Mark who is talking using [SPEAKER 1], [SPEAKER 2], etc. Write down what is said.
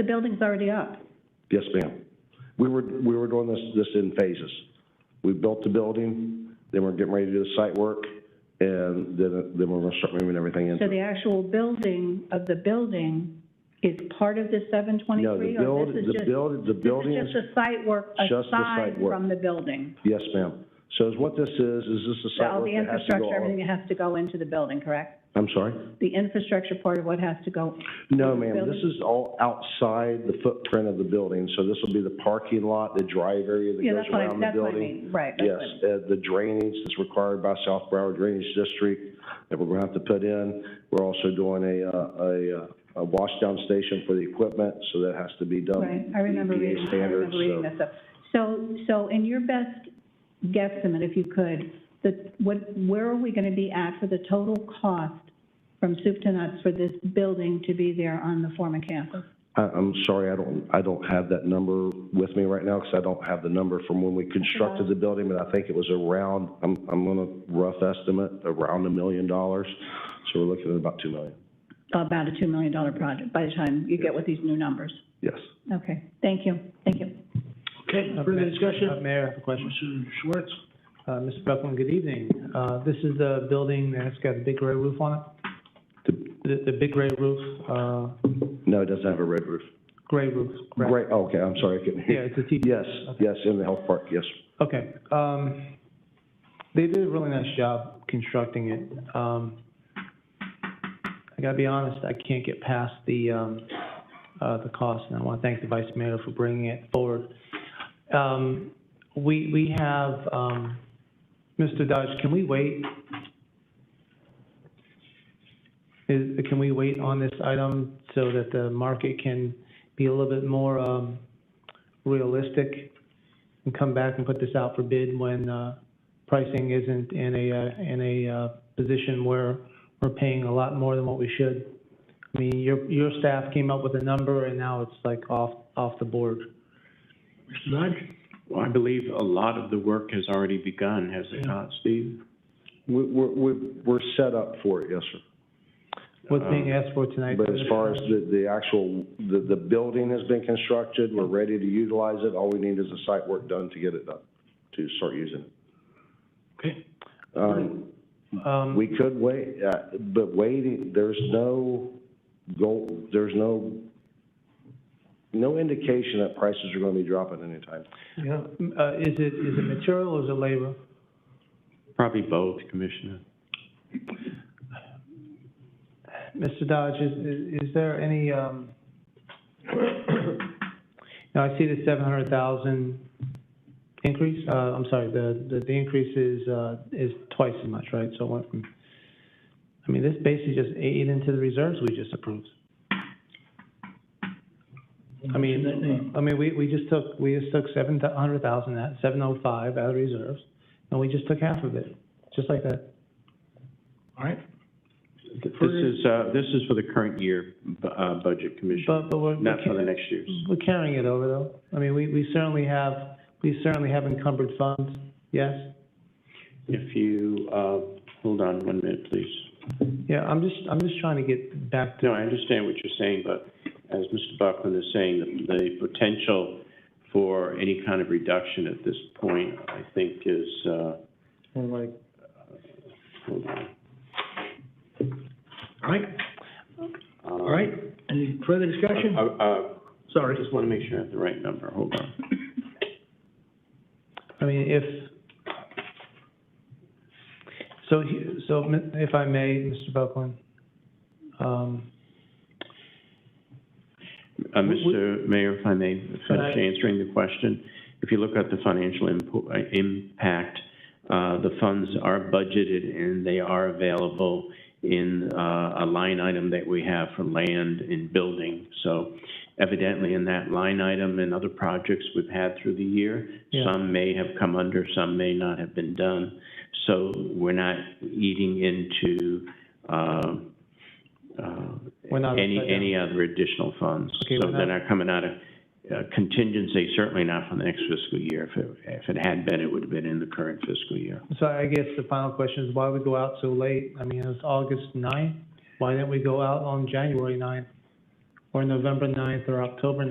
[SPEAKER 1] The building's already up.
[SPEAKER 2] Yes, ma'am. We were, we were doing this, this in phases. We built the building, then we're getting ready to do the site work, and then, then we're gonna start moving everything
[SPEAKER 1] So
[SPEAKER 2] in.
[SPEAKER 1] the actual building of the building is part of the seven
[SPEAKER 2] No, the
[SPEAKER 1] twenty-three?
[SPEAKER 2] build,
[SPEAKER 1] Or this is
[SPEAKER 2] the
[SPEAKER 1] just,
[SPEAKER 2] build, the building
[SPEAKER 1] this
[SPEAKER 2] is,
[SPEAKER 1] is just the site work
[SPEAKER 2] just the
[SPEAKER 1] aside
[SPEAKER 2] site work.
[SPEAKER 1] from the building?
[SPEAKER 2] yes, ma'am. So is what this is, is this the
[SPEAKER 1] So
[SPEAKER 2] site
[SPEAKER 1] all
[SPEAKER 2] work
[SPEAKER 1] the
[SPEAKER 2] that has to go
[SPEAKER 1] infrastructure,
[SPEAKER 2] on?
[SPEAKER 1] everything has to go into the building, correct?
[SPEAKER 2] I'm sorry?
[SPEAKER 1] The infrastructure part of what has to go,
[SPEAKER 2] No,
[SPEAKER 1] the
[SPEAKER 2] ma'am, this is all outside the footprint of the building, so this will be the parking lot, the drive area that
[SPEAKER 1] yeah,
[SPEAKER 2] goes
[SPEAKER 1] that's what I,
[SPEAKER 2] around the
[SPEAKER 1] that's what I
[SPEAKER 2] building.
[SPEAKER 1] mean, right, that's
[SPEAKER 2] Yes,
[SPEAKER 1] what I mean.
[SPEAKER 2] uh, the drainage that's required by South Broward Drainage District that we're gonna have to put in. We're also doing a, uh, a, uh, a wash down station for the equipment, so that has to be done.
[SPEAKER 1] Right, I remember
[SPEAKER 2] EPA
[SPEAKER 1] reading, I
[SPEAKER 2] standards,
[SPEAKER 1] remember reading
[SPEAKER 2] so-
[SPEAKER 1] this up. So, so in your best guesstimate, if you could, the, what, where are we gonna be at for the total cost from soup to nuts for this building to be there on the former campus?
[SPEAKER 2] I, I'm sorry, I don't, I don't have that number with me right now, because I don't have the number from when we constructed the building, but I think it was around, I'm, I'm gonna rough estimate, around a million dollars. So we're looking at about two million,
[SPEAKER 1] About a two million dollar project by the time you get with these new numbers.
[SPEAKER 2] yes.
[SPEAKER 1] Okay, thank you, thank you.
[SPEAKER 3] Okay,
[SPEAKER 4] Uh,
[SPEAKER 3] further
[SPEAKER 4] Ma-
[SPEAKER 3] discussion?
[SPEAKER 4] uh, Mayor, I have a question.
[SPEAKER 3] Mr. Schwartz?
[SPEAKER 4] Uh, Mr. Buckland, good evening. Uh, this is the building that's got the big gray roof on it?
[SPEAKER 2] The-
[SPEAKER 4] The, the big gray roof, uh,
[SPEAKER 2] No, it doesn't have a red roof.
[SPEAKER 4] gray roof, correct?
[SPEAKER 2] Great, okay, I'm sorry, I couldn't hear.
[SPEAKER 4] Yeah, it's a T.
[SPEAKER 2] Yes,
[SPEAKER 4] Okay.
[SPEAKER 2] yes, in the health park, yes.
[SPEAKER 4] Okay, um, they did a really nice job constructing it. Um, I gotta be honest, I can't get past the, um, uh, the cost, and I wanna thank the vice mayor for bringing it forward. Um, we, we have, um, Mr. Dodge, can we wait? Is, can we wait on this item so that the market can be a little bit more, um, realistic? and come back and put this out for bid when uh, pricing isn't in a, uh, in a uh, position where we're paying a lot more than what we should. I mean, your, your staff came up with a number and now it's like off, off the board.
[SPEAKER 3] Mr. Dodge?
[SPEAKER 5] Well, I believe a lot of the work has already begun, has it not, Steve?
[SPEAKER 2] We, we're, we're- we're set up for it, yes, sir.
[SPEAKER 4] What's being asked for tonight?
[SPEAKER 2] Um, But as far as the, the actual, the, the building has been constructed, we're ready to utilize it, all we need is the site work done to get it done, to start using it.
[SPEAKER 3] Okay.
[SPEAKER 2] Um,
[SPEAKER 4] Um,
[SPEAKER 2] we could wait, uh, but waiting, there's no goal, there's no, no indication that prices are gonna be dropping anytime.
[SPEAKER 4] yeah, uh, Is it, is it material or is it labor?
[SPEAKER 5] Probably both, Commissioner.
[SPEAKER 4] Mr. Dodge, is, is- is there any, um, now I see the seven hundred thousand increase, uh, I'm sorry, the, the, the increase is, uh, is twice as much, right? So it went from, I mean, this basically just ate into the reserves we just approved. I mean, I mean, we, we just took, we just took seven hundred thousand, that, seven oh five out of reserves, and we just took half of it, just like that.
[SPEAKER 3] All right,
[SPEAKER 5] This is, uh, this is for the current year, bu- uh, budget, Commissioner,
[SPEAKER 4] But, but we're.
[SPEAKER 5] not for the next year's.
[SPEAKER 4] We're carrying it over, though. I mean, we, we certainly have, we certainly have encumbered funds, yes?
[SPEAKER 5] If you, uh, hold on one minute, please.
[SPEAKER 4] Yeah, I'm just, I'm just trying to get back to,
[SPEAKER 5] No, I understand what you're saying, but as Mr. Buckland is saying, the- the potential for any kind of reduction at this point, I think is, uh,
[SPEAKER 4] more like,
[SPEAKER 5] hold on.
[SPEAKER 3] all right,
[SPEAKER 5] All
[SPEAKER 3] all right. Any further discussion?
[SPEAKER 5] Sorry. Uh, Just want to make sure I have the right number, hold on.
[SPEAKER 4] I mean, if, so, he- so m- if I may, Mr. Buckland, um,
[SPEAKER 5] Uh, Mr. Mayor, if I may finish answering the question. If you look at the financial impo- uh, impact, uh, the funds are budgeted and they are available in uh, a line item that we have for land and building. So evidently, in that line item and other projects we've had through the year,
[SPEAKER 4] Yeah.
[SPEAKER 5] some may have come under, some may not have been done. So we're not eating into um, uh,
[SPEAKER 4] We're not
[SPEAKER 5] any,
[SPEAKER 4] upside down.
[SPEAKER 5] any other additional funds.
[SPEAKER 4] Okay,
[SPEAKER 5] So
[SPEAKER 4] we're
[SPEAKER 5] they're not coming out of uh, contingency, certainly not for the next fiscal year. If it, if it had been, it would have been in the current fiscal year.
[SPEAKER 4] so I guess the final question is why we go out so late? I mean, it was August ninth. Why didn't we go out on January ninth? or November 9th or October